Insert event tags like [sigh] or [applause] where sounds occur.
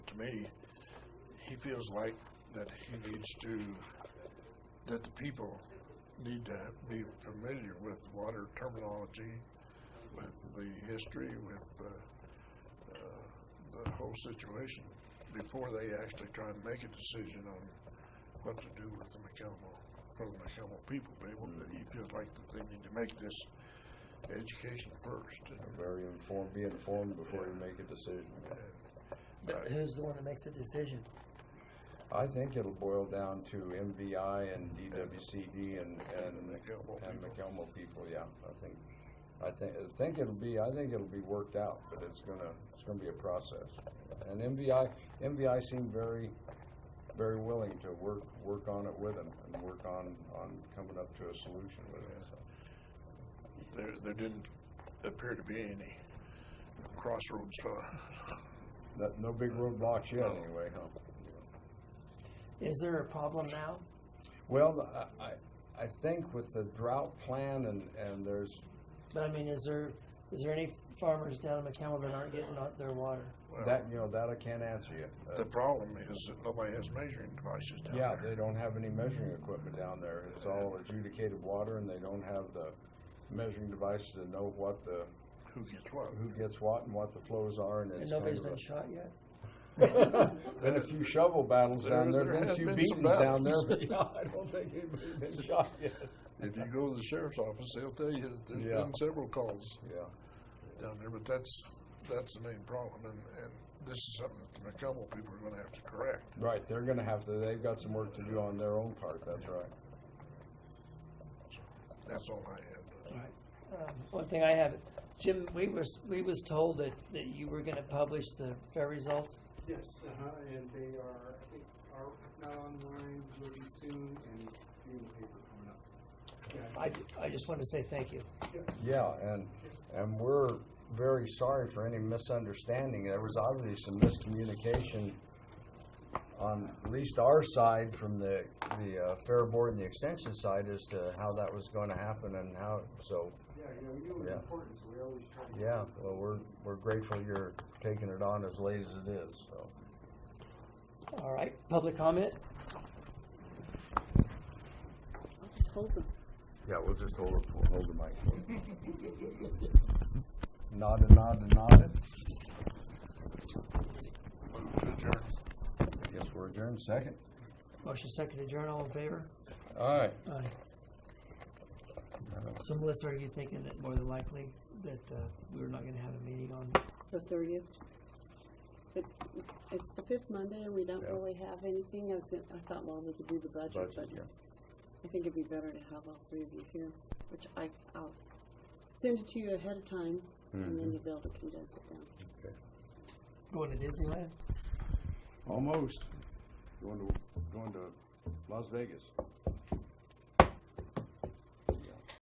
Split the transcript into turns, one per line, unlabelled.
me, he feels like that he needs to, that the people need to be familiar with water terminology, with the history, with the, uh, the whole situation before they actually try and make a decision on what to do with the McElmo, for the McElmo people. They, want- he feels like that they need to make this education first.
Very informed, be informed before you make a decision.
But who's the one that makes the decision?
I think it'll boil down to MVI and DWCD E and, and,
McElmo
and
people.
McElmo people, yeah, I think. I think, I think it'll be, I think it'll be worked out, but it's gonna, it's gonna be a process. And MVI, MVI seemed very, very willing to work, work on it with him and work on, on coming up to a solution with it, so.
There, there didn't appear to be any crossroads, uh,
No, no big roadblocks yet anyway, huh?
Is there a problem now?
Well, I, I, I think with the drought plan and, and there's,
But I mean, is there, is there any farmers down in McCamell that aren't getting out their water?
well,
that, you know, that I can't answer yet. Uh,
The problem is that nobody has measuring devices down
Yeah,
there.
they don't have any measuring equipment down there. It's all adjudicated water and they don't have the measuring device to know what the,
Who gets what?
who gets what and what the flows are and
And
it's kind
nobody's
of
been
a.
shot yet?
[laughs] Been a few shovel battles down
There-
there,
there
been a
has
few
been some
beatings down there,
battles.
but [laughs] yeah, I don't think anybody's been shot
[laughs]
yet.
If you go to the sheriff's office, they'll tell you that there's
Yeah.
been several calls
Yeah.
down there, but that's, that's the main problem, and, and this is something that the McComo people are gonna have to correct.
Right, they're gonna have to, they've got some work to do on their own part, that's right.
That's all I have.
Um, One thing I have, Jim, we was, we was told that, that you were gonna publish the fair results.
Yes, uh-huh, and they are, I think, are now online, will be soon, and in the paper coming up. Yeah,
I, ju- I just wanted to say thank you.
Yeah, and, and we're very sorry for any misunderstanding. There was obviously some miscommunication on at least our side from the, the uh, Fair Board and the Extension side as to how that was going to happen and how, so,
yeah, you know, we knew it was
Yeah.
important, so we always try to.
yeah, well, we're, we're grateful you're taking it on as late as it is, so.
All right, public comment?
Yeah, we'll just hold, we'll hold the mic. [laughs] Nod and nod and nod it.
Move to adjourn.
Yes, we're adjourned, second.
Motion second to adjourn, all in favor?
All right.
Aye. So Melissa, are you thinking that more than likely that, uh, we're not gonna have a meeting on
the thirtieth. It, it's the fifth Monday and we don't
Yeah.
really have anything. I was, gonna- I thought, well, we could do the budget, but I think it'd be better to have all three of you here, which I, I'll send it to you ahead of time and then you'll be able to condense it down.
going to Disneyland?
Almost. Going to, going to Las Vegas.